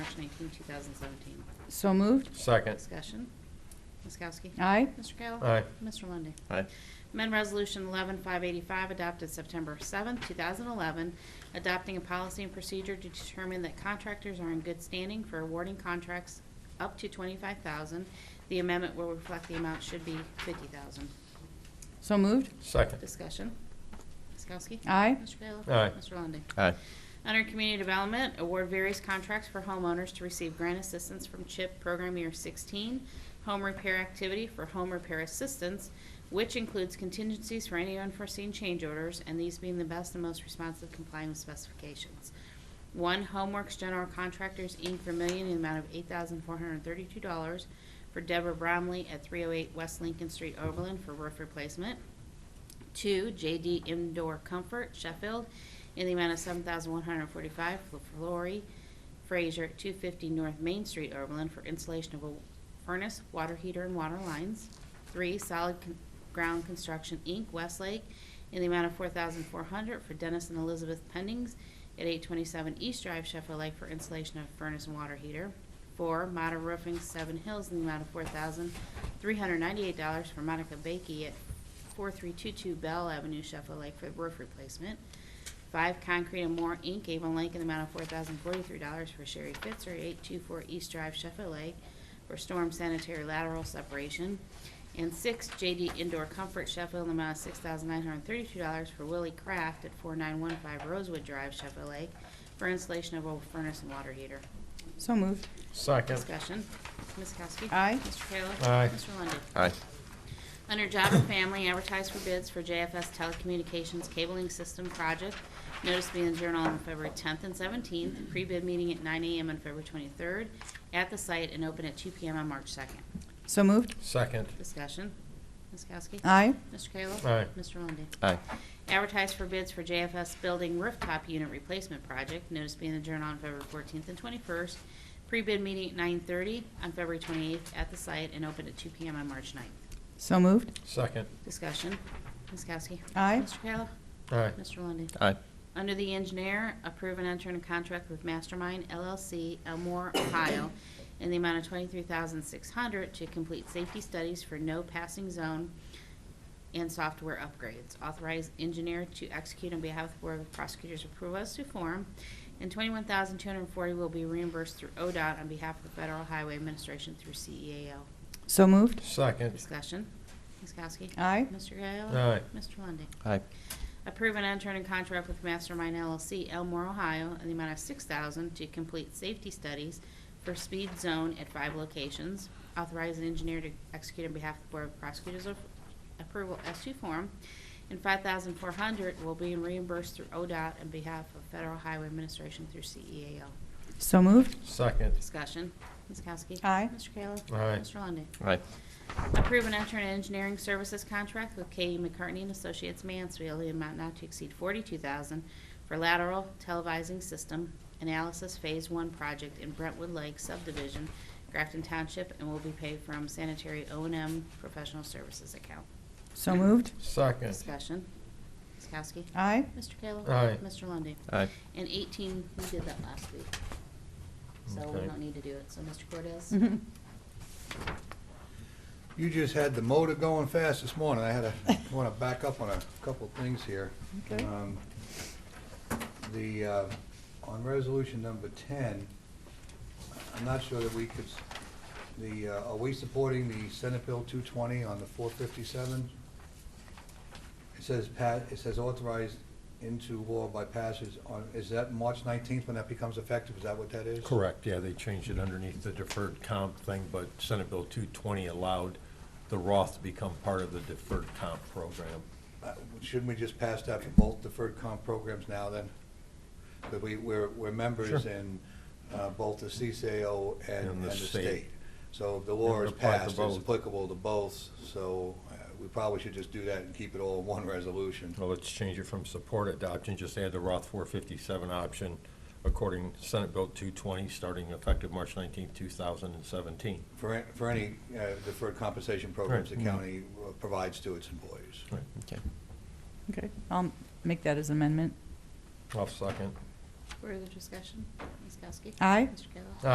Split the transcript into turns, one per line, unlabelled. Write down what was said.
19, 2017.
So moved.
Second.
Discussion. Ms. Kowski?
Aye.
Mr. Kayla?
Aye.
Mr. Lundy.
Aye.
Amendment Resolution 11585 adopted September 7, 2011, adopting a policy and procedure to determine that contractors are in good standing for awarding contracts up to 25000 The amendment will reflect the amount should be 50000
So moved.
Second.
Discussion. Ms. Kowski?
Aye.
Mr. Kayla?
Aye.
Mr. Lundey?
Aye.
Under Community Development, award various contracts for homeowners to receive grant assistance from CHIP Program Year 16, home repair activity for home repair assistance, which includes contingencies for any unforeseen change orders, and these being the best and most responsive complying with specifications. One, Homeworks General Contractors, Inc., Vermillion, in the amount of $8,432 for Deborah Bromley at 308 West Lincoln Street, Oberlin, for roof replacement. Two, JD Indoor Comfort Sheffield in the amount of seven thousand one hundred forty-five for Lori Frazier, two fifty North Main Street, Oberlin, for installation of a furnace, water heater, and water lines. Three, Solid Con- Ground Construction, Inc., Westlake, in the amount of four thousand four hundred for Dennis and Elizabeth Pendings at eight twenty-seven East Drive, Sheffield Lake, for installation of furnace and water heater. Four, Mata Roofing, Seven Hills, in the amount of four thousand three hundred ninety-eight dollars for Monica Bakey at 4322 Bell Avenue, Sheffield Lake, for roof replacement. Five Concrete and More, Inc., Avon Lake, in the amount of $4,043 for Sherry Fitzer, 824 East Drive, Sheffield Lake, for storm sanitary lateral separation. And six JD Indoor Comfort Sheffield, in the amount of $6,932 for Willie Kraft at 4915 Rosewood Drive, Sheffield Lake, for installation of a furnace and water heater.
So moved.
Second.
Discussion. Ms. Kowski?
Aye.
Mr. Kayla?
Aye.
Mr. Lundey?
Aye.
Under Job and Family, advertise for bids for JFS Telecommunications Cabling System Project. Notice to be in the Journal on February 10th and 17th. Pre-bid meeting at 9 a.m. on February 23rd at the site and open at 2 p.m. on March 2nd.
So moved.
Second.
Discussion. Ms. Kowski?
Aye.
Mr. Kayla?
Aye.
Mr. Lundey?
Aye.
Advertise for bids for JFS Building Rooftop Unit Replacement Project. Notice being in the Journal on February 14th and 21st. Pre-bid meeting at 9:30 on February 28th at the site and open at 2 p.m. on March 9th.
So moved.
Second.
Discussion. Ms. Kowski?
Aye.
Mr. Kayla?
Aye.
Mr. Lundey?
Aye.
Under the engineer, approve and enter in a contract with Mastermind LLC, Elmore, Ohio, in the amount of twenty-three thousand six hundred to complete safety studies for no passing zone and software upgrades. Authorize engineer to execute on behalf of the Board of Prosecutors approval as to form, and twenty-one thousand two hundred and forty will be reimbursed through ODOT on behalf of the Federal Highway Administration through E CEAO.
So moved.
Second.
Discussion. Ms. Kowski?
Aye.
Mr. Kayla?
Aye.
Mr. Lundey?
Aye.
Approve and enter in contract with Mastermind LLC, Elmore, Ohio, in the amount of six thousand to complete safety studies for speed zone at five locations. Authorize an engineer to execute on behalf of the Board of Prosecutors of approval S two form. And five thousand four hundred will be reimbursed through ODOT on behalf of Federal Highway Administration through E CEAO.
So moved.
Second.
Discussion. Ms. Kowski?
Aye.
Mr. Kayla?
Aye.
Mr. Lundey?
Aye.
Approve and enter an engineering services contract with K. E McCartney and Associates Mansfield in amount not to exceed forty-two thousand for lateral televising system analysis phase one project in Brentwood Lake subdivision, Grafton Township, and will be paid from sanitary O and M professional services account.
So moved.
Second.
Discussion. Ms. Kowski?
Aye.
Mr. Kayla?
Aye.
Mr. Lundy.
Aye.
And eighteen, we did that last week, so we
Okay.
don't need to do it. So, Mr. Cordez?
Mhm.
You just had the motor going fast this morning. I had a, want to back up on a couple of things here.
Okay.
Um, The, uh, on resolution number 10, I'm not sure that we could, s- the, uh, are we supporting the Senate Bill 220 on the 457? It says, pa- it says authorized into law by passage on, is that March 19th when that becomes effective? Is that what that is?
Correct, yeah, they changed it underneath the deferred comp thing, but Senate Bill 220 allowed the Roth to become part of the deferred comp program.
Uh, Shouldn't we just pass that for both deferred comp programs now then? That we, we're, we're members
Sure.
in uh, both the CCAO and, and the state. So the
It
law
would
is
apply to
passed, it's
both.
applicable to both, so uh, we probably should just do that and keep it all in one resolution.
Well, let's change it from support adoption, just add the Roth 457 option according to Senate Bill 220, starting effective March 19, 2017.
For, an- for any uh, deferred compensation programs the
Right.
county uh, provides to its employees.
Okay.
Okay. I'll make that as amendment.
I'll second.
Further discussion? Ms. Kowski?
Aye.
Mr. Kayla?